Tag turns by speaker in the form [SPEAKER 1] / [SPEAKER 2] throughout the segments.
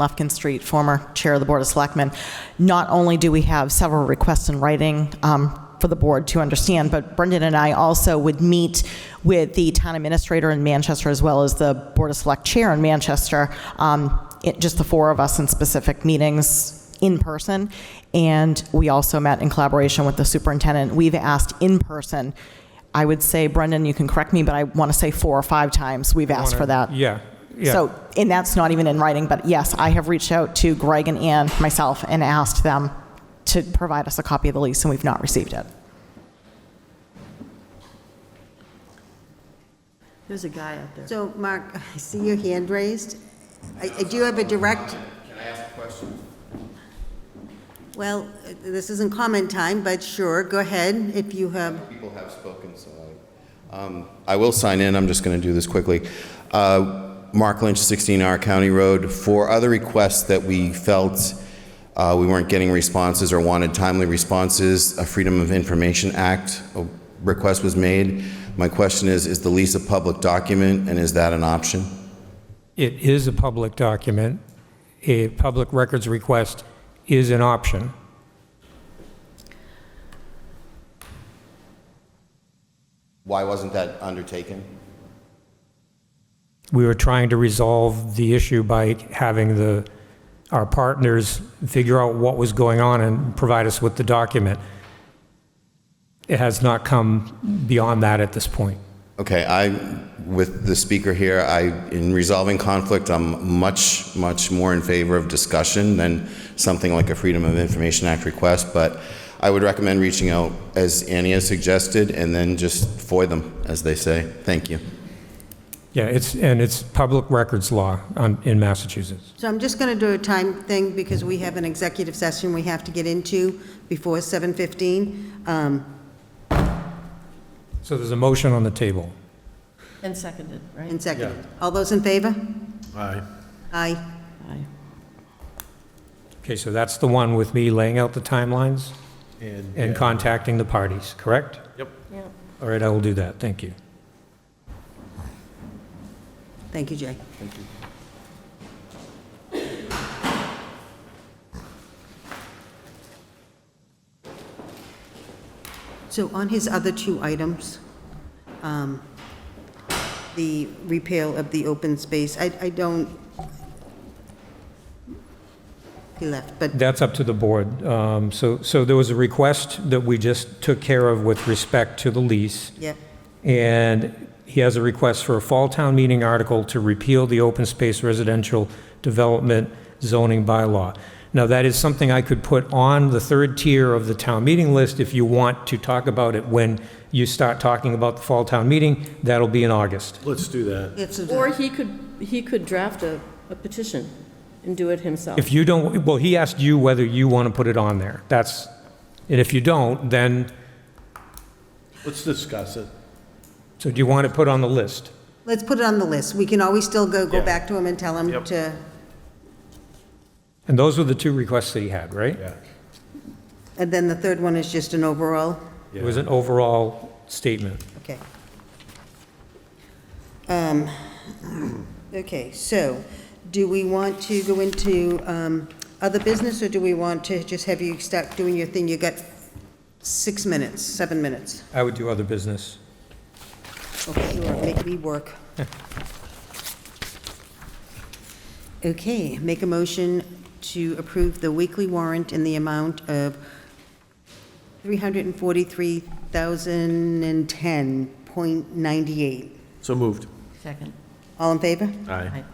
[SPEAKER 1] Lefkin Street, former Chair of the Board of Selectmen. Not only do we have several requests in writing um, for the board to understand, but Brendan and I also would meet with the town administrator in Manchester as well as the Board of Select Chair in Manchester, um, it- just the four of us in specific meetings in person. And we also met in collaboration with the superintendent. We've asked in person, I would say, Brendan, you can correct me, but I want to say four or five times we've asked for that.
[SPEAKER 2] Yeah, yeah.
[SPEAKER 1] So, and that's not even in writing, but yes, I have reached out to Greg and Ann myself and asked them to provide us a copy of the lease, and we've not received it.
[SPEAKER 3] There's a guy out there. So, Mark, I see your hand raised. I I do have a direct,
[SPEAKER 4] Can I ask a question?
[SPEAKER 3] well, this isn't comment time, but sure, go ahead if you have,
[SPEAKER 4] People have spoken, so I, um, I will sign in, I'm just going to do this quickly. Uh, Mark Lynch, 16R County Road, for other requests that we felt uh, we weren't getting responses or wanted timely responses, a Freedom of Information Act uh, request was made. My question is, is the lease a public document, and is that an option?
[SPEAKER 2] It is a public document. A public records request is an option.
[SPEAKER 4] Why wasn't that undertaken?
[SPEAKER 2] We were trying to resolve the issue by having the, our partners figure out what was going on and provide us with the document. It has not come beyond that at this point.
[SPEAKER 4] Okay, I, with the speaker here, I, in resolving conflict, I'm much, much more in favor of discussion than something like a Freedom of Information Act request, but I would recommend reaching out, as Annie has suggested, and then just FOI them, as they say. Thank you.
[SPEAKER 2] Yeah, it's, and it's public records law on- in Massachusetts.
[SPEAKER 3] so I'm just going to do a time thing because we have an executive session we have to get into before 7:15. Um,
[SPEAKER 2] So there's a motion on the table.
[SPEAKER 5] And seconded, right?
[SPEAKER 3] And second, all those in favor?
[SPEAKER 6] Aye.
[SPEAKER 3] Aye.
[SPEAKER 5] Aye.
[SPEAKER 2] Okay, so that's the one with me laying out the timelines and contacting the parties, correct?
[SPEAKER 6] Yep.
[SPEAKER 5] Yep.
[SPEAKER 2] All right, I will do that, thank you.
[SPEAKER 3] Thank you, Jay. So on his other two items, um, the repeal of the open space, I I don't, he left, but
[SPEAKER 2] That's up to the board. Um, So, so there was a request that we just took care of with respect to the lease,
[SPEAKER 3] yeah,
[SPEAKER 2] and he has a request for a fall town meeting article to repeal the open space residential development zoning bylaw. Now, that is something I could put on the third tier of the town meeting list if you want to talk about it when you start talking about the fall town meeting. That'll be in August.
[SPEAKER 6] Let's do that.
[SPEAKER 3] it's,
[SPEAKER 5] Or
[SPEAKER 3] a-
[SPEAKER 5] he could, he could draft a, a petition and do it himself.
[SPEAKER 2] If you don't, well, he asked you whether you want to put it on there. That's, and if you don't, then,
[SPEAKER 6] Let's discuss it.
[SPEAKER 2] so do you want it put on the list?
[SPEAKER 3] let's put it on the list. We can always still go, go
[SPEAKER 6] Yeah.
[SPEAKER 3] back to him and tell him
[SPEAKER 6] Yep.
[SPEAKER 3] to,
[SPEAKER 2] And those were the two requests that he had, right?
[SPEAKER 6] Yeah.
[SPEAKER 3] and then the third one is just an overall.
[SPEAKER 2] It was an overall statement.
[SPEAKER 3] Okay. Um, Okay, so do we want to go into um, other business, or do we want to just have you start doing your thing? You got six minutes, seven minutes.
[SPEAKER 2] I would do other business.
[SPEAKER 3] Okay, you are- make me work. Okay, make a motion to approve the weekly warrant in the amount of $343,010.98.
[SPEAKER 6] So moved.
[SPEAKER 5] Second.
[SPEAKER 3] All in favor?
[SPEAKER 6] Aye.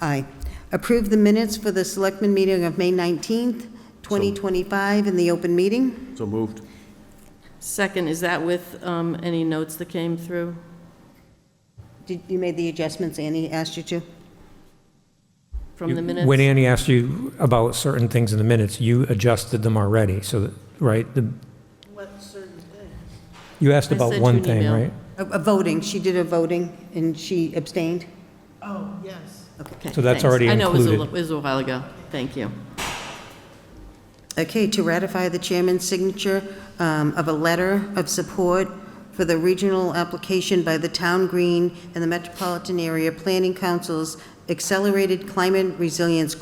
[SPEAKER 3] Aye. Approve the minutes for the Selectmen meeting of May 19th, 2025, in the open meeting.
[SPEAKER 6] So moved.
[SPEAKER 5] Second, is that with um, any notes that came through?
[SPEAKER 3] Did- You made the adjustments Annie asked you to?
[SPEAKER 5] From the
[SPEAKER 2] You-
[SPEAKER 5] minutes?
[SPEAKER 2] When Annie asked you about certain things in the minutes, you adjusted them already, so, that- right? the- You asked
[SPEAKER 5] I
[SPEAKER 2] about
[SPEAKER 5] sent you
[SPEAKER 2] one
[SPEAKER 5] an
[SPEAKER 2] thing,
[SPEAKER 5] email.
[SPEAKER 2] right?
[SPEAKER 3] A a voting, she did a voting, and she abstained?
[SPEAKER 5] Okay,
[SPEAKER 2] So that's
[SPEAKER 5] thanks.
[SPEAKER 2] already
[SPEAKER 5] I know, it was a
[SPEAKER 2] included.
[SPEAKER 5] li- it was a while ago. Thank you.
[SPEAKER 3] Okay, to ratify the chairman's signature um, of a letter of support for the regional application by the Town Green and the Metropolitan Area Planning Council's Accelerated Climate Resilience